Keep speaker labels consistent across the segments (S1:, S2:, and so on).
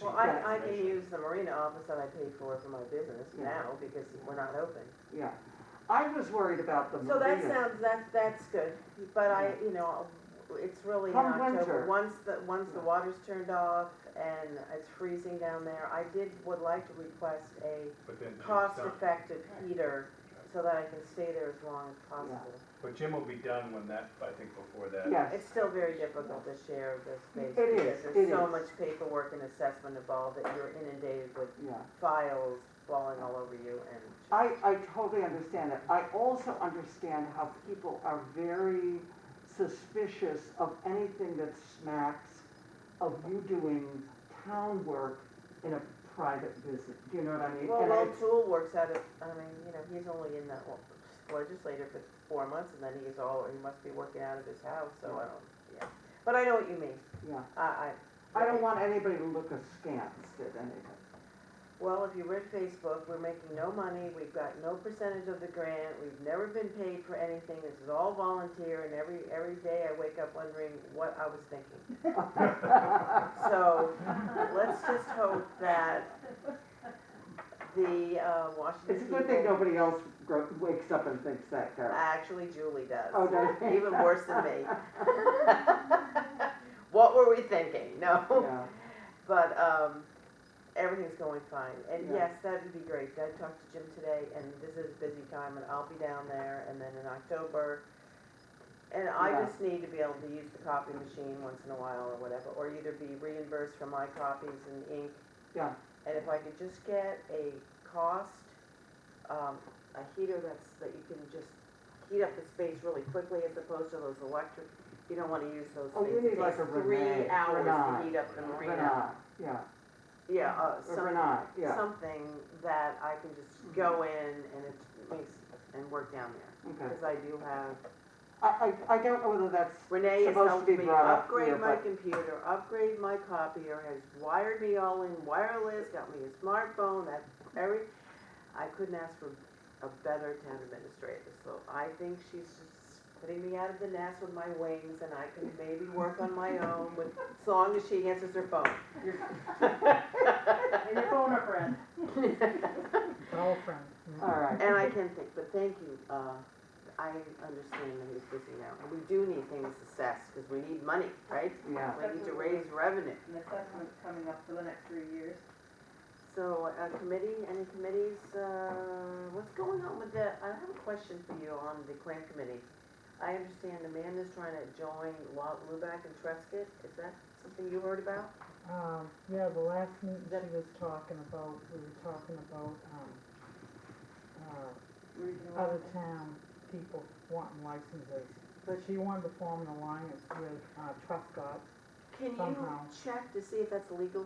S1: Well, I, I can use the marina office that I pay for for my business
S2: Yeah.
S1: now because we're not open.
S2: Yeah, I was worried about the
S1: So that
S2: marina.
S1: sounds, that, that's good, but I, you know, it's really in
S2: Come
S1: October,
S2: winter.
S1: once the, once the water's turned off and it's freezing down there, I did, would like to request a
S3: But then Jim's done.
S1: cost-effective heater so that I can stay there as long as possible.
S3: But Jim will be done when that, I think before that.
S2: Yes,
S1: It's still very difficult to share the space.
S2: It is,
S1: because
S2: it
S1: There's so
S2: is.
S1: much paperwork and assessment involved that you're inundated with
S2: yeah.
S1: files falling all over you and.
S2: I, I totally understand it. I also understand how people are very suspicious of anything that smacks of you doing town work in a private visit, do you know what I mean?
S1: Well,
S2: And
S1: Will
S2: it's-
S1: Tool works out of, I mean, you know, he's only in that legislature for four months and then he is all, he must be working out of his house, so I don't, yeah. But I know what you mean.
S2: Yeah,
S1: I, I.
S2: I don't want anybody to look askance at anything.
S1: Well, if you read Facebook, we're making no money, we've got no percentage of the grant, we've never been paid for anything, this is all volunteer and every, every day I wake up wondering what I was thinking. So, let's just hope that the uh, Washington
S2: It's a good thing
S1: people-
S2: nobody else gro- wakes up and thinks that, Carol.
S1: Actually, Julie does.
S2: Oh, does she?
S1: Even worse than me. What were we thinking? No.
S2: Yeah,
S1: But, um, everything's going fine. And
S2: Yeah.
S1: yes, that'd be great. I talked to Jim today and this is a busy time and I'll be down there and then in October. And I
S2: Yeah.
S1: just need to be able to use the copy machine once in a while or whatever, or either be reimbursed for my copies and ink.
S2: Yeah.
S1: And if I could just get a cost, um, a heater that's, that you can just heat up the space really quickly as opposed to those electric, you don't wanna use those
S2: Oh,
S1: things.
S2: you need
S1: It
S2: like
S1: takes
S2: a Renee,
S1: Three hours to
S2: Renee,
S1: heat up the
S3: Renee.
S2: but
S1: marina.
S2: not, yeah,
S1: Yeah, uh,
S2: or
S1: some-
S2: not, yeah, Mm-hmm.
S1: something that I can just go in and it makes, and work down there.
S2: okay.
S1: Cause I do have,
S2: I, I, I don't know whether that's
S1: Renee has
S2: Supposed to
S1: helped
S2: be
S1: me
S2: brought up here,
S1: upgrade my
S2: but-
S1: computer, upgrade my copier, has wired me all in wireless, got me a smartphone, that, every, I couldn't ask for a better town administrator, so I think she's just putting me out of the nest with my wings, and I can maybe work on my own with, as long as she answers her phone.
S4: And your phone a friend.
S5: All friends.
S2: All right.
S1: And I can think, but thank you, uh, I understand that he's busy now, and we do need things assessed, because we need money, right?
S2: Yeah,
S1: We need to raise revenue.
S4: And the assessment's coming up for the next three years.
S1: So, uh committee, any committees, uh, what's going on with the, I have a question for you on the claim committee. I understand Amanda's trying to join Wa- Lubac and Trescott, is that something you heard about?
S5: Um, yeah, the last meeting she was talking about, we were talking about, um, uh, other town people wanting licenses. But she wanted to form an alliance with, uh, Truscott.
S1: Can you
S5: Somehow.
S1: check to see if that's legal?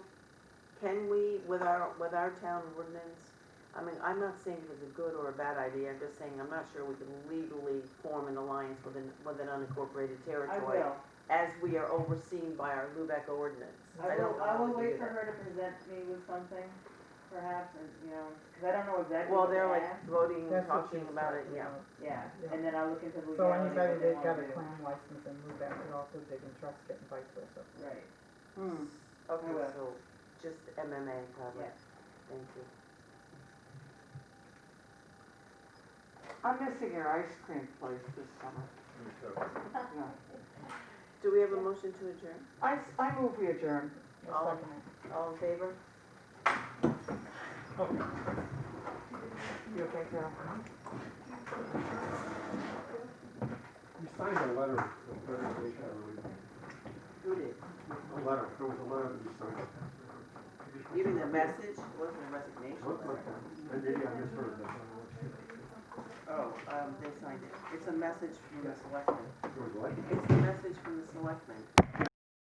S1: Can we, with our, with our town ordinance, I mean, I'm not saying it was a good or a bad idea, I'm just saying I'm not sure we can legally form an alliance with an, with an unincorporated
S4: I
S1: territory.
S4: will.
S1: As we are overseen by our Lubec ordinance.
S4: I
S1: don't
S4: will,
S1: know
S4: I
S1: how
S4: will
S1: we
S4: wait
S1: do
S4: for
S1: that.
S4: her to present me with something, perhaps, and, you know, because I don't know exactly
S1: Well,
S4: what to
S1: they're
S4: ask.
S1: like voting,
S5: That's what
S1: Mm, talking
S5: she was
S1: about it,
S5: talking
S1: yeah.
S5: about.
S4: Yeah,
S5: Yeah.
S4: and then I'll look into
S5: So
S4: legality.
S5: anybody
S4: what they
S5: that got
S4: wanna
S5: a
S4: do.
S5: clam license and move back could also dig in Truscott and vice versa.
S4: Right.
S2: Hmm.
S1: Okay,
S4: will.
S1: so just MMA probably,
S4: Yeah.
S1: thank you.
S2: I'm missing your ice cream place this summer.
S3: So-
S2: Yeah.
S1: Do we have a motion to adjourn?
S2: I, s- I move we adjourn.
S5: I'll
S1: All-
S5: second it.
S1: All in favor?
S2: You okay, Carol?
S6: You signed a letter of resignation, I believe.
S1: Who did?
S6: A letter, there was a letter that you signed.
S1: Even the message, it wasn't a resignation
S6: Looked
S1: letter.
S6: like that. Maybe I misheard that.
S1: Oh, um, they signed it. It's a message from the selectmen.
S6: It was like.
S1: It's a message from the selectmen.